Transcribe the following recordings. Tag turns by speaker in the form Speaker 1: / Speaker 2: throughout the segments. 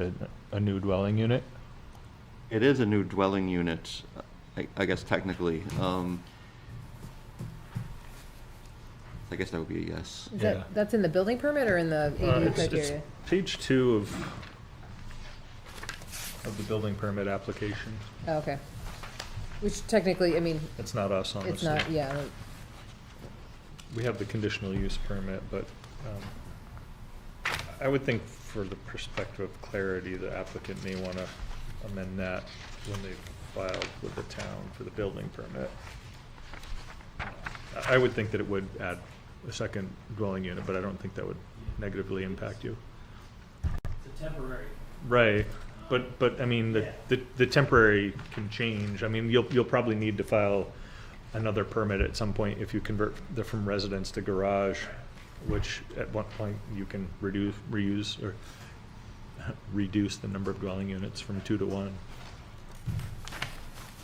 Speaker 1: a, a new dwelling unit?
Speaker 2: It is a new dwelling unit, I, I guess technically. Um, I guess that would be a yes.
Speaker 3: Is
Speaker 1: Yeah.
Speaker 3: that, that's in the building permit or in the
Speaker 1: Uh,
Speaker 3: ADU
Speaker 1: it's- it's
Speaker 3: criteria?
Speaker 1: Page two of, of the building permit application.
Speaker 3: Oh, okay. Which technically, I mean,
Speaker 1: It's not us,
Speaker 3: it's
Speaker 1: honestly.
Speaker 3: not, yeah, like,
Speaker 1: We have the conditional use permit, but um, I would think for the perspective of clarity, the applicant may want to amend that when they filed with the town for the building permit. I- I would think that it would add a second dwelling unit, but I don't think that would negatively impact you.
Speaker 4: It's a temporary.
Speaker 1: Right, but, but, I mean, the,
Speaker 4: Yeah.
Speaker 1: the the temporary can change, I mean, you'll, you'll probably need to file another permit at some point if you convert the, from residence to garage, which at one point you can reduce, reuse, or reduce the number of dwelling units from two to one.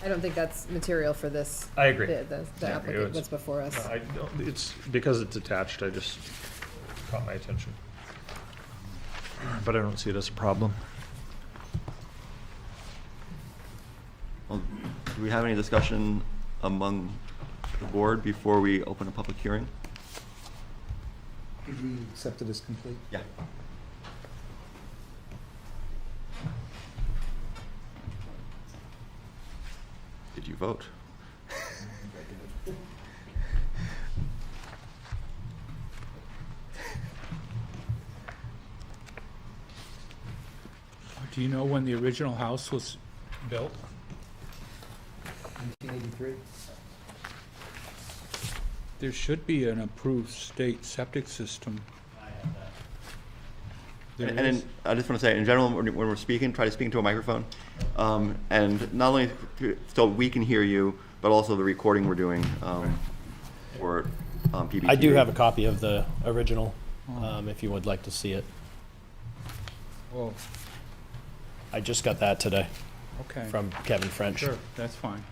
Speaker 3: I don't think that's material for this.
Speaker 1: I agree.
Speaker 3: The, the- the
Speaker 1: I agree.
Speaker 3: applicant
Speaker 1: It's-
Speaker 3: that's before us.
Speaker 1: I don't, it's, because it's attached, I just caught my attention. But I don't see it as a problem.
Speaker 2: Well, Um, do we have any discussion among the board before we open a public hearing?
Speaker 5: Did we accept it as complete?
Speaker 2: Yeah. Did you vote?
Speaker 6: Do you know when the original house was built?
Speaker 5: 1983?
Speaker 6: There should be an approved state septic system. There
Speaker 2: And, and
Speaker 6: is.
Speaker 2: in- I just want to say, in general, when, when we're speaking, try to speak into a microphone. Um, and not only to- so we can hear you, but also the recording we're doing um, for um, PBT.
Speaker 4: I do have a copy of the original, um, if you would like to see it.
Speaker 6: Oh,
Speaker 4: I just got that today
Speaker 6: okay.
Speaker 4: from Kevin French.
Speaker 6: Sure, that's fine.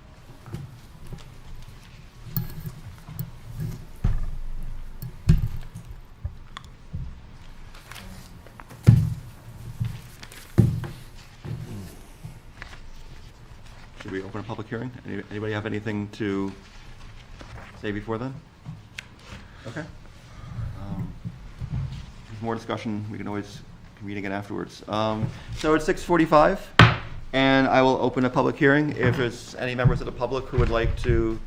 Speaker 2: Should we open a public hearing? Any- Anybody have anything to say before then? Okay. Um, if More discussion, we can always convene again afterwards. Um, So it's 6:45, and I will open a public hearing. If there's any members of the public who would like to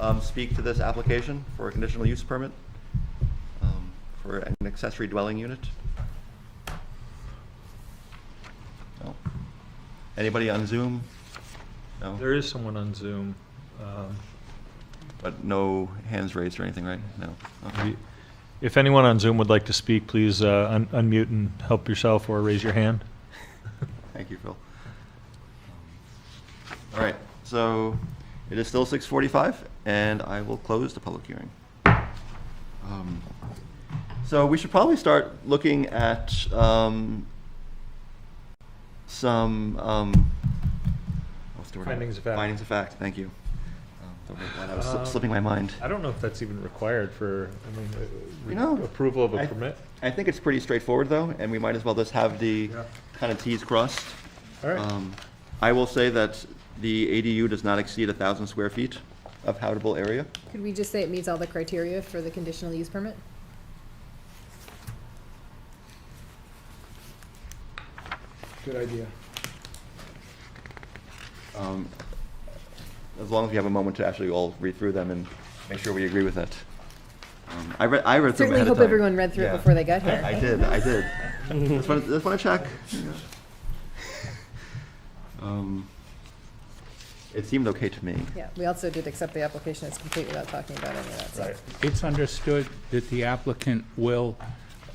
Speaker 2: um, speak to this application for a conditional use permit um, for an accessory dwelling unit? No? Anybody on Zoom? No?
Speaker 1: There is someone on Zoom, um,
Speaker 2: But no hands raised or anything, right? No. Okay.
Speaker 1: If anyone on Zoom would like to speak, please uh, un- unmute and help yourself or raise your hand.
Speaker 2: Thank you, Phil. Um, All right, so it is still 6:45, and I will close the public hearing. Um, So we should probably start looking at um, some, um, what's the word?
Speaker 1: Findings of fact.
Speaker 2: Findings of fact, thank you. Um, don't know why That was
Speaker 1: Um,
Speaker 2: sli- slipping my mind.
Speaker 1: I don't know if that's even required for, I mean, uh, re-
Speaker 2: You know,
Speaker 1: approval of a
Speaker 2: I-
Speaker 1: permit.
Speaker 2: I think it's pretty straightforward, though, and we might as well just have the
Speaker 1: Yeah.
Speaker 2: kind of Ts crossed.
Speaker 1: All right,
Speaker 2: Um, I will say that the ADU does not exceed 1,000 square feet of habitable area.
Speaker 3: Could we just say it meets all the criteria for the conditional use permit?
Speaker 5: Good idea.
Speaker 2: Um, As long as we have a moment to actually all read through them and make sure we agree with it. Um, I read, I read through them
Speaker 3: Certainly
Speaker 2: ahead of
Speaker 3: hope
Speaker 2: time.
Speaker 3: everyone read through it
Speaker 2: Yeah.
Speaker 3: before they got here.
Speaker 2: I did, I did. Just want, just want to check. Um, It seemed okay to me.
Speaker 3: Yeah, we also did accept the application as complete without talking about any of that
Speaker 1: right.
Speaker 3: stuff.
Speaker 6: It's understood that the applicant will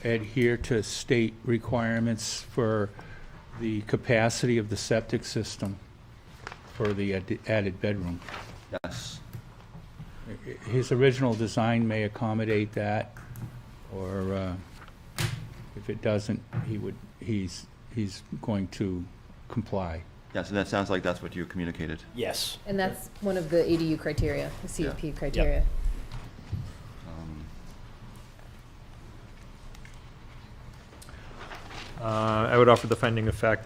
Speaker 6: adhere to state requirements for the capacity of the septic system for the ad- added bedroom.
Speaker 2: Yes.
Speaker 6: His original design may accommodate that, or uh, if it doesn't, he would, he's, he's going to comply.
Speaker 2: Yes, and that sounds like that's what you communicated.
Speaker 4: Yes.
Speaker 3: And that's one of the ADU criteria, the CUP criteria.
Speaker 2: Um,
Speaker 1: Uh, I would offer the finding of fact